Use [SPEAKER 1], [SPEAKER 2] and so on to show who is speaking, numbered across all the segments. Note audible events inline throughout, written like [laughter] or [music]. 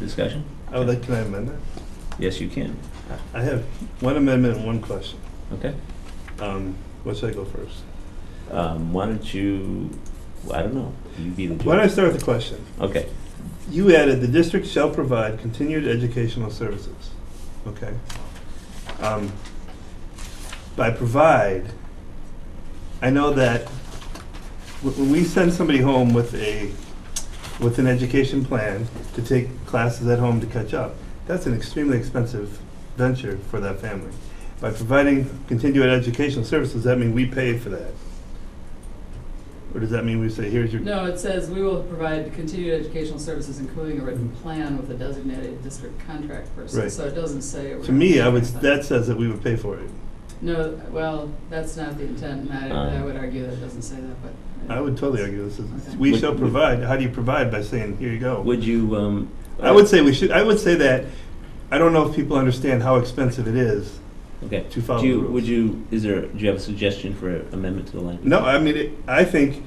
[SPEAKER 1] Discussion?
[SPEAKER 2] I would like to amend that.
[SPEAKER 1] Yes, you can.
[SPEAKER 2] I have one amendment and one question.
[SPEAKER 1] Okay.
[SPEAKER 2] Um, Where should I go first?
[SPEAKER 1] Um, why don't you, I don't know, you be the judge.
[SPEAKER 2] Why don't I start with the question?
[SPEAKER 1] Okay,
[SPEAKER 2] You added, "The district shall provide continued educational services." Okay. Um, By provide, I know that wh- when we send somebody home with a, with an education plan to take classes at home to catch up, that's an extremely expensive venture for that family. By providing continued educational services, does that mean we pay for that? Or does that mean we say, here's your
[SPEAKER 3] No, it says we will provide continued educational services, including a written plan with a designated district contract person.
[SPEAKER 2] Mm. Right.
[SPEAKER 3] So it doesn't say. we're
[SPEAKER 2] To me, I
[SPEAKER 3] gonna
[SPEAKER 2] would,
[SPEAKER 3] do
[SPEAKER 2] that says that we would pay for it.
[SPEAKER 3] No, well, that's not the intent, and I, I
[SPEAKER 1] Um,
[SPEAKER 3] would argue that it doesn't say that, but.
[SPEAKER 2] Uh. I would totally argue this is,
[SPEAKER 3] Okay.
[SPEAKER 2] we
[SPEAKER 1] Would-
[SPEAKER 2] shall
[SPEAKER 1] would-
[SPEAKER 2] provide, how do you provide by saying, here you go?
[SPEAKER 1] would you, um?
[SPEAKER 2] I would say we should, I would say that, I don't know if people understand how expensive it is
[SPEAKER 1] Okay.
[SPEAKER 2] to follow
[SPEAKER 1] Do
[SPEAKER 2] the
[SPEAKER 1] you, would
[SPEAKER 2] Oh, rules.
[SPEAKER 1] you, is there, do you have a suggestion for amendment to the language?
[SPEAKER 2] No, I mean, it- I think,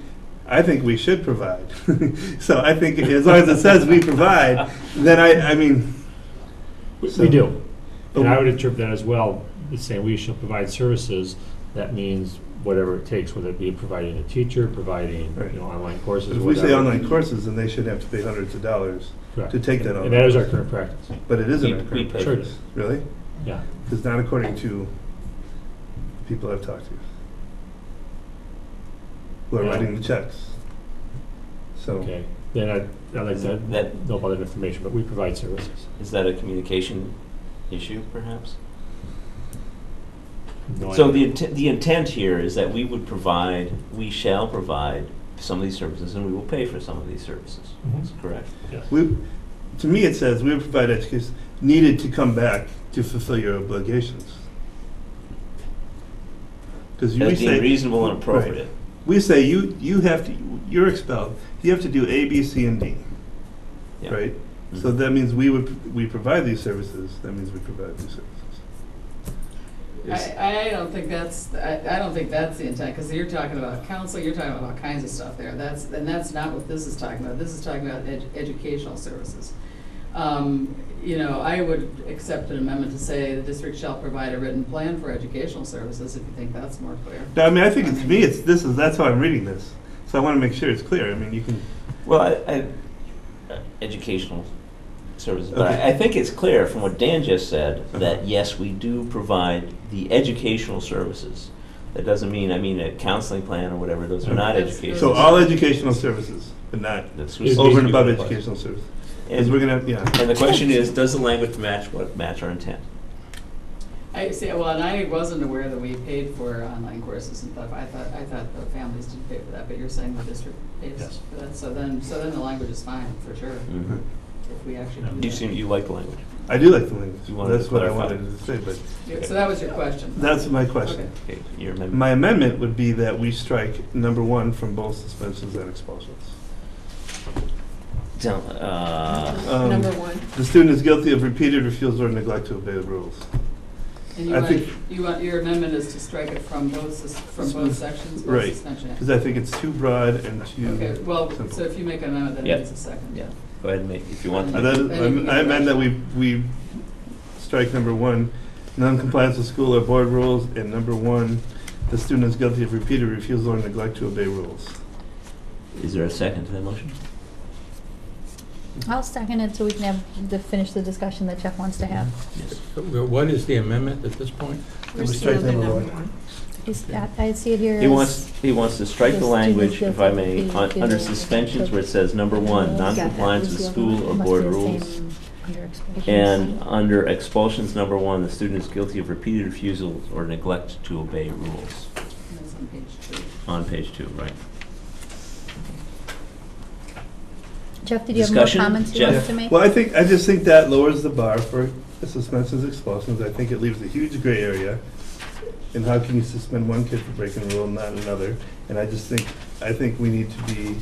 [SPEAKER 2] I think we should provide. [laughs] So I think as long as it says
[SPEAKER 1] [laughs]
[SPEAKER 2] we provide, then I, I mean,
[SPEAKER 4] We
[SPEAKER 2] So-
[SPEAKER 4] we do.
[SPEAKER 2] but
[SPEAKER 4] And I would interpret that as well, as saying we shall provide services. That means whatever it takes, whether it be providing a teacher, providing,
[SPEAKER 2] Right.
[SPEAKER 4] you know, online courses,
[SPEAKER 2] if we
[SPEAKER 4] whatever.
[SPEAKER 2] say online courses, then they should have to pay hundreds of dollars,
[SPEAKER 4] Correct.
[SPEAKER 2] to take that
[SPEAKER 4] And-
[SPEAKER 2] online
[SPEAKER 4] And that is our current practice,
[SPEAKER 2] but it isn't
[SPEAKER 1] We-
[SPEAKER 2] our
[SPEAKER 1] we
[SPEAKER 2] current
[SPEAKER 1] pay
[SPEAKER 4] Sure.
[SPEAKER 1] for this.
[SPEAKER 2] really?
[SPEAKER 4] yeah.
[SPEAKER 2] Because not according to people I've talked to, who are
[SPEAKER 4] Yeah.
[SPEAKER 2] writing the checks. So,
[SPEAKER 4] Okay. Then I, I'd like
[SPEAKER 1] Is
[SPEAKER 4] to
[SPEAKER 1] that-
[SPEAKER 4] know about that information, but we provide services.
[SPEAKER 1] Is that a communication issue perhaps?
[SPEAKER 4] No
[SPEAKER 1] So the
[SPEAKER 4] idea.
[SPEAKER 1] intent, the intent here is that we would provide, we shall provide some of these services and we will pay for some of these services.
[SPEAKER 2] Mm-hmm.
[SPEAKER 4] Mhm.
[SPEAKER 1] That's correct.
[SPEAKER 2] we, to me, it says we provide education needed to come back to fulfill your obligations. Because we
[SPEAKER 1] As being
[SPEAKER 2] say,
[SPEAKER 1] reasonable and appropriate.
[SPEAKER 2] we say you, you have to, you're expelled, you have to do A, B, C, and D,
[SPEAKER 1] Yeah.
[SPEAKER 2] right? So
[SPEAKER 1] Mhm.
[SPEAKER 2] that means we would, we provide these services, that means we provide these services. Is-
[SPEAKER 3] I, I don't think that's, I, I don't think that's the intent, because you're talking about council, you're talking about all kinds of stuff there. That's, and that's not what this is talking about. This is talking about ed- educational services. Um, you know, I would accept an amendment to say the district shall provide a written plan for educational services, if you think that's more clear.
[SPEAKER 2] No, I mean, I think it's me. It's this is that's how I'm reading this. So I want to make sure it's clear. I mean, you can.
[SPEAKER 1] Well, I, I, uh, educational services, but
[SPEAKER 2] Okay.
[SPEAKER 1] I, I think it's clear from what Dan just said
[SPEAKER 2] Uh-huh.
[SPEAKER 1] that yes, we do provide the educational services. That doesn't mean, I mean, a counseling plan or whatever, those are not
[SPEAKER 3] Okay. That's-
[SPEAKER 1] educational.
[SPEAKER 2] So all educational services, but not
[SPEAKER 1] That's
[SPEAKER 4] It's
[SPEAKER 2] over
[SPEAKER 1] basically
[SPEAKER 2] and above
[SPEAKER 1] what it was.
[SPEAKER 2] educational services. Because
[SPEAKER 1] And,
[SPEAKER 2] we're gonna, yeah.
[SPEAKER 1] and the question is, does the language match what, match our intent?
[SPEAKER 3] I see, well, and I wasn't aware that we paid for online courses and stuff. I thought, I thought the families didn't pay for that, but you're saying the district pays
[SPEAKER 4] Yes.
[SPEAKER 3] for that. So then, so then the language is fine, for sure,
[SPEAKER 2] Mm-hmm.
[SPEAKER 1] Mhm.
[SPEAKER 3] if we actually do that.
[SPEAKER 1] You seem, you like the language.
[SPEAKER 2] I do like the language.
[SPEAKER 1] You wanted to
[SPEAKER 2] That's what I
[SPEAKER 1] clarify.
[SPEAKER 2] wanted to say. But
[SPEAKER 3] Yeah, So that was your question.
[SPEAKER 2] that's my question.
[SPEAKER 1] Okay, your amendment.
[SPEAKER 2] My amendment would be that we strike number one from both suspensions and expulsions.
[SPEAKER 1] Don't, uh,
[SPEAKER 2] Um,
[SPEAKER 5] Number one.
[SPEAKER 2] The student is guilty of repeated refusal or neglect to obey the rules.
[SPEAKER 3] And you
[SPEAKER 2] I
[SPEAKER 3] want,
[SPEAKER 2] think-
[SPEAKER 3] you want, your amendment is to strike it from both, sus- from both sections, both
[SPEAKER 2] Right.
[SPEAKER 3] suspension.
[SPEAKER 2] Because I think it's too broad and
[SPEAKER 3] Okay,
[SPEAKER 2] too.
[SPEAKER 3] well,
[SPEAKER 2] simple.
[SPEAKER 3] so if you make an amendment, then
[SPEAKER 1] Yeah.
[SPEAKER 3] it is a second.
[SPEAKER 1] yeah, go ahead and make, if you want.
[SPEAKER 2] I
[SPEAKER 1] to.
[SPEAKER 2] then- I I amend that we, we strike number one, non-compliance with school or board rules, and number one, the student is guilty of repeated refusal or neglect to obey rules.
[SPEAKER 1] Is there a second to that motion?
[SPEAKER 6] I'll second it so we can have, the finish the discussion that Jeff wants to have.
[SPEAKER 1] Yes.
[SPEAKER 7] What is the amendment at this point?
[SPEAKER 2] Number
[SPEAKER 5] Where's the
[SPEAKER 2] strike
[SPEAKER 5] other
[SPEAKER 2] number
[SPEAKER 5] number
[SPEAKER 2] one.
[SPEAKER 5] one?
[SPEAKER 6] Is that, I see it here
[SPEAKER 1] Mm-hmm. He
[SPEAKER 6] as-
[SPEAKER 1] wants, he wants to strike the
[SPEAKER 6] Just
[SPEAKER 1] language,
[SPEAKER 6] do the
[SPEAKER 1] if I
[SPEAKER 6] fifth
[SPEAKER 1] may,
[SPEAKER 6] page,
[SPEAKER 1] on-
[SPEAKER 6] do
[SPEAKER 1] under
[SPEAKER 6] the-
[SPEAKER 1] suspensions where it says, number one,
[SPEAKER 6] Yeah, that
[SPEAKER 1] noncompliance
[SPEAKER 6] was
[SPEAKER 1] with
[SPEAKER 6] the other
[SPEAKER 1] school
[SPEAKER 6] one.
[SPEAKER 1] or
[SPEAKER 6] Must
[SPEAKER 1] board
[SPEAKER 6] be the
[SPEAKER 1] rules.
[SPEAKER 6] same under expulsions.
[SPEAKER 1] And under expulsions, number one, the student is guilty of repeated refusal or neglect to obey rules,
[SPEAKER 3] And That's on page two.
[SPEAKER 1] on page two, right?
[SPEAKER 6] Jeff, did you have more
[SPEAKER 1] Discussion?
[SPEAKER 6] comments you
[SPEAKER 1] Jeff?
[SPEAKER 6] wanted to make?
[SPEAKER 2] Well, I think, I just think that lowers the bar for suspensions, expulsions, I think it leaves a huge gray area. And how can you suspend one kid for breaking a rule and not another? And I just think, I think we need to be,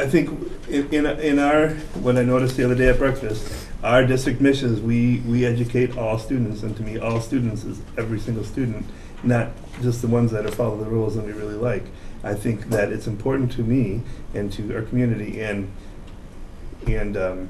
[SPEAKER 2] I think in, in, in our, what I noticed the other day at breakfast, our district missions, we, we educate all students, and to me, all students is every single student, not just the ones that are follow the rules and we really like. I think that it's important to me and to our community and, and, um,